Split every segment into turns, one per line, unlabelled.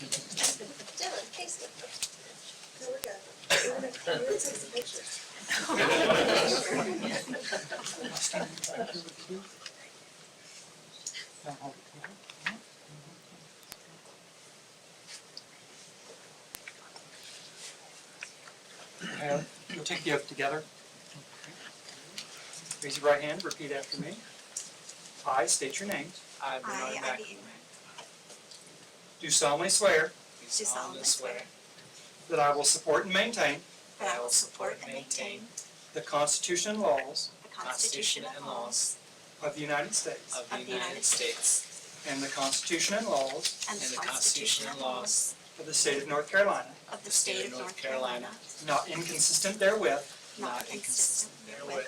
Dylan, Casey. Here we go. We're gonna, we're gonna take some pictures.
Uh, You'll take the oath together. Raise your right hand, repeat after me. I state your names. I,
I,
Bernard
Ivy
Mac-
Ingram,
Do solemnly swear.
do solemnly swear
That I will support and maintain
that I will support and maintain
the Constitution and laws
the Constitution and laws
of the United States
of the United States
and the Constitution and laws
and
and
the
the
Constitution and laws
of the state of North Carolina,
of the State of North Carolina,
not inconsistent therewith,
not inconsistent therewith,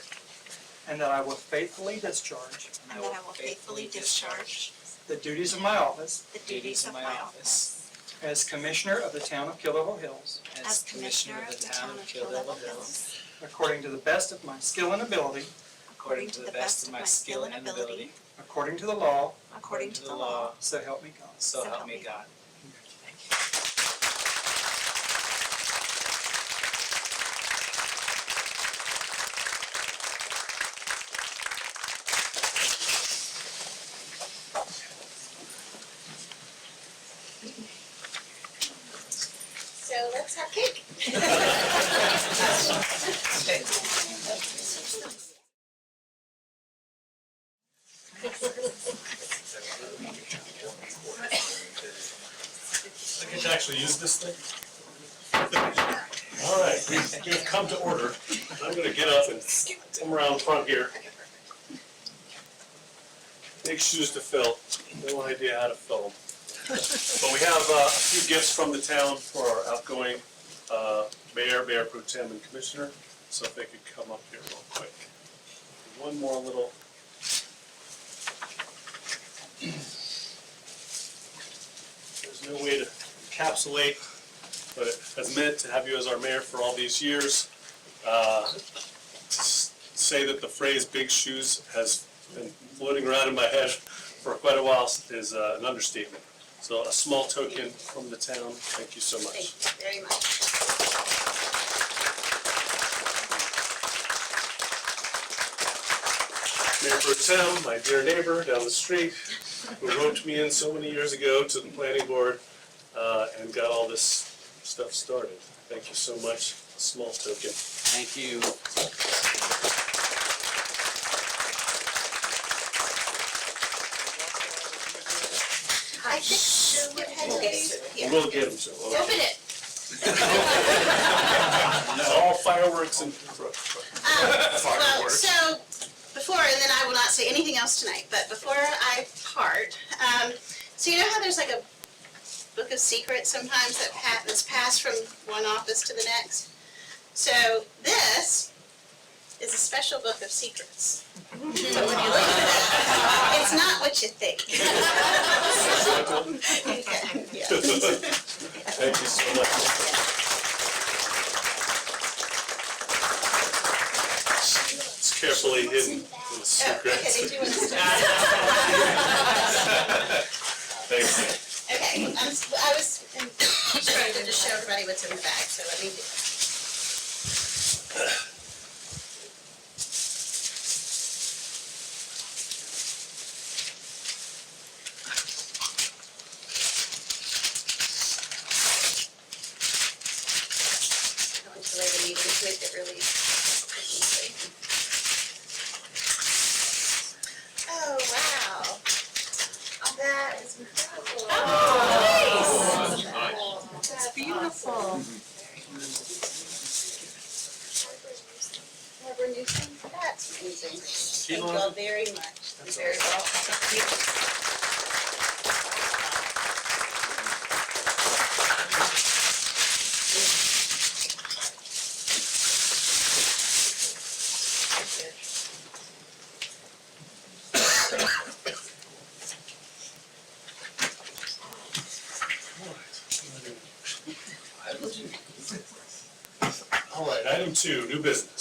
and that I will faithfully discharge
and that I will faithfully discharge
the duties of my office
the duties of my office
as Commissioner of the Town of Kill Devil Hills
as Commissioner of the Town of Kill Devil Hills,
according to the best of my skill and ability,
according to the best of my skill and ability,
according to the law,
according to the law,
so help me God.
so help me God.
So let's have cake.
I get to actually use this thing? All right, we've- we've come to order. I'm gonna get up and come around front here. Big shoes to fill, no idea how to fill them. But we have uh, a few gifts from the town for our outgoing uh, mayor, mayor pro tem, and commissioner. So if they could come up here real quick. One more little There's no way to encapsulate what it has meant to have you as our mayor for all these years. Uh, s- Say that the phrase "big shoes" has been floating around in my head for quite a while is uh, an understatement. So a small token from the town, thank you so
Thank
much.
you very much.
Mayor Pro Tem, my dear neighbor down the street, who roped me in so many years ago to the planning board uh, and got all this stuff started. Thank you so much, A small token.
Thank you.
I think she would have these.
We'll get them, so.
Open it.
All fireworks and.
Well, so, before, and then I will not say anything else tonight, but before I part, um, so you know how there's like a book of secrets sometimes that pa- that's passed from one office to the next? So this is a special book of secrets. So when you look at it, it's not what you think. Okay, yeah.
Thank you so much. It's carefully hidden in the
Oh, okay,
secret.
did you want to start?
Thanks.
Okay, I'm, s- I was um, trying to just show everybody what's in the bag, so let me do that. I want to lay the meeting to make it really easy. Oh, wow. That is incredible. Oh, nice. That's beautiful. Barbara Newsom, that's amazing. Thank you all very much. You're Very welcome.
All right, item two, new business.
Oh, um,